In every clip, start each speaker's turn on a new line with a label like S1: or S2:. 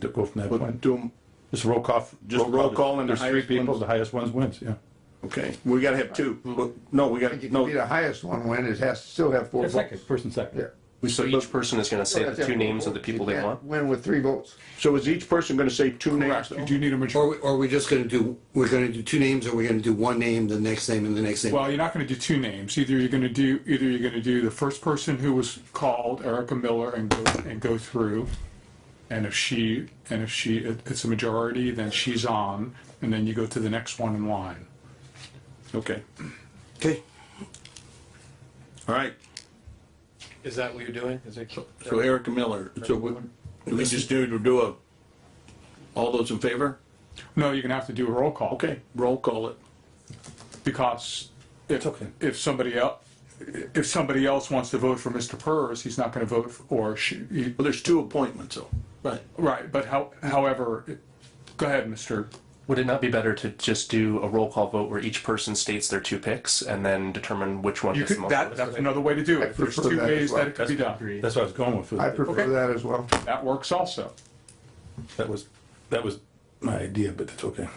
S1: to go from that
S2: But
S1: point.
S2: do,
S1: Just roll call, just
S2: Roll call
S1: roll call, and
S2: the
S1: there's three
S2: highest
S1: people,
S2: ones.
S1: the highest ones wins, yeah.
S2: okay, we gotta have two.
S3: Hmm.
S2: Well, No, we
S4: If
S2: got,
S4: you
S2: no,
S4: can be the highest one win, it has to still have four votes.
S1: First and second.
S4: Yeah.
S3: So each person is gonna say the two names of the people they
S4: You can't
S3: want?
S4: Win with three votes.
S2: so is each person gonna say two names?
S5: You do need a majority.
S6: Or, we- or are we just gonna do, we're gonna do two names, or we're gonna do one name, the next name, and the next name?
S5: Well, you're not going to do two names. Either you're going to do, either you're going to do the first person who was called, Erica Miller, and go, and go through. And if she, and if she, it- it's a majority, then she's on, and then you go to the next one in line.
S2: Okay,
S6: Okay.
S2: all right,
S7: Is that what you're doing? Is it?
S2: so Erica Miller, so we, do we just do, to do a, all those in favor?
S5: No, you're going to have to do a roll call.
S2: Okay, roll call it.
S5: Because if,
S1: okay.
S5: if somebody else, if somebody else wants to vote for Mr. Purrs, he's not going to vote, for- or she, he-
S2: Well, there's two appointments, though. Right.
S5: right, but how, however, it- go ahead, Mr.
S3: Would it not be better to just do a roll call vote where each person states their two picks and then determine which one
S5: You
S3: gets the
S5: could,
S3: most?
S5: that,
S3: votes?
S5: that's another way to do
S4: I
S5: it. There's
S4: prefer
S5: two
S4: that as
S5: ways
S4: well.
S5: that it could be done.
S1: That's what I was going with,
S4: I
S1: that
S4: prefer that as well.
S5: That works also.
S1: was, that was my idea, but that's okay.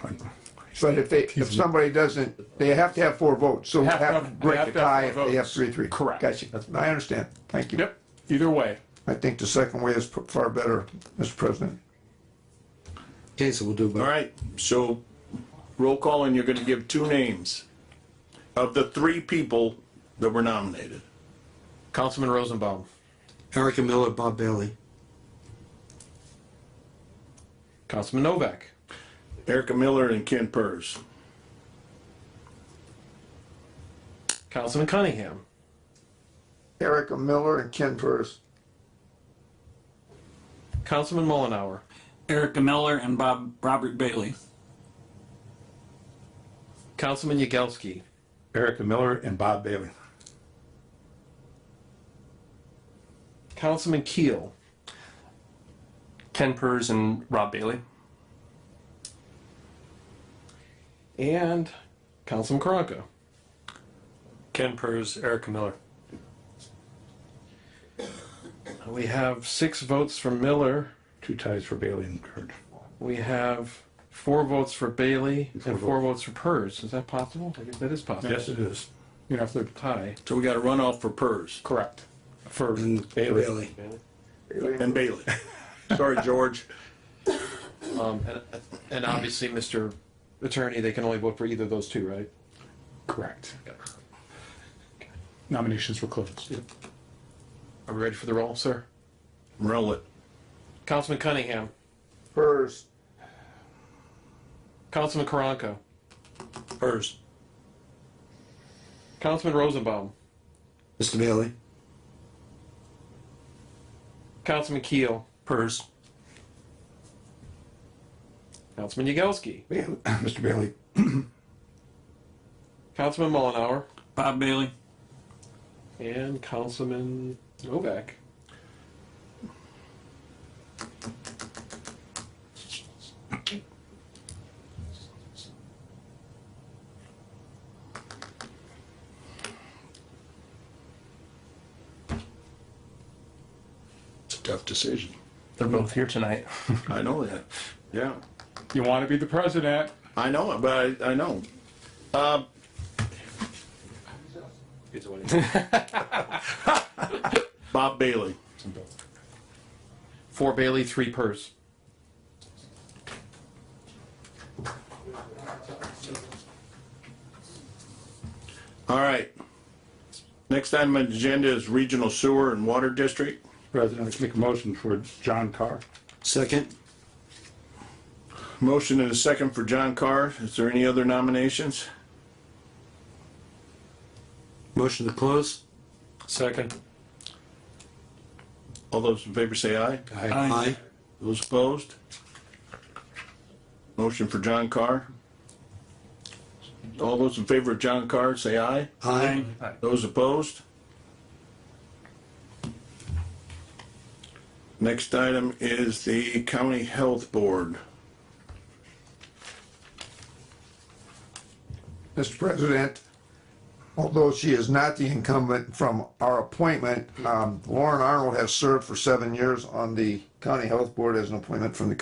S4: But if they, if somebody doesn't, they have to have four votes, so we
S5: Have to
S4: have to
S5: have- they
S4: break
S5: have
S4: a
S5: to have
S4: tie if
S5: four
S4: they have
S5: votes.
S4: three, three.
S5: Correct.
S4: Gotcha. I understand. Thank you.
S5: Yep, either way.
S4: I think the second way is p- far better, Mr. President.
S6: Okay, so we'll do
S2: All
S6: both.
S2: right, so roll call, and you're gonna give two names of the three people that were nominated.
S7: Councilman Rosenbaum,
S6: Erica Miller, Bob Bailey.
S7: Councilman Novak,
S2: Erica Miller and Ken Purz.
S7: Councilman Cunningham,
S4: Erica Miller and Ken Purse.
S7: Councilman Mullenhour,
S8: Erica Miller and Bob Robert Bailey.
S7: Councilman Yagelski,
S1: Erica Miller and Bob Bailey.
S7: Councilman Keel,
S3: Ken Purrs and Rob Bailey.
S7: and Councilman Karanka.
S9: Ken Purz, Erica Miller.
S7: We have six votes for Miller.
S1: Two ties for Bailey and Kurt.
S7: We have four votes for Bailey and four votes for Purrs. Is that possible? I guess that is possible.
S1: Yes, it is.
S5: You have to,
S7: Tie.
S2: So we got a runoff for Purz
S5: correct. For,
S6: And
S1: Bailey.
S6: Bailey.
S2: and Bailey. Sorry, George.
S7: Um, and, and obviously, Mr. Attorney, they can only vote for either of those two, right?
S5: correct. Nominations were closed.
S7: Are we ready for the roll, sir?
S2: Roll it.
S7: Councilman Cunningham,
S4: Purse,
S7: Councilman Karanka,
S2: Purz.
S7: Councilman Rosenbaum,
S6: Mr. Bailey.
S7: Councilman Keel,
S3: Purrs.
S7: Councilman Yagelski,
S1: Bailey- Mr. Bailey,
S7: Councilman Mullenhour,
S8: Bob Bailey.
S7: and Councilman Novak.
S2: It's a tough decision.
S3: They're both here tonight.
S2: I know that. Yeah.
S5: You want to be the president?
S2: I know it, but I, I know. Um, Uh, Bob Bailey.
S7: Four Bailey, three Purrs.
S2: All right. Next item on the agenda is Regional Sewer and Water District.
S1: President, I make a motion for John Carr.
S6: Second.
S2: Motion and a second for John Carr. Is there any other nominations?
S6: Motion to close.
S9: Second.
S2: All those in favor say aye.
S6: Aye.
S2: Those opposed? Motion for John Carr. All those in favor of John Carr, say aye.
S6: Aye.
S2: Those opposed? Next item is the County Health Board.
S4: Mr. President, although she is not the incumbent from our appointment, um, Lauren Arnold has served for seven years on the County Health Board as an appointment from the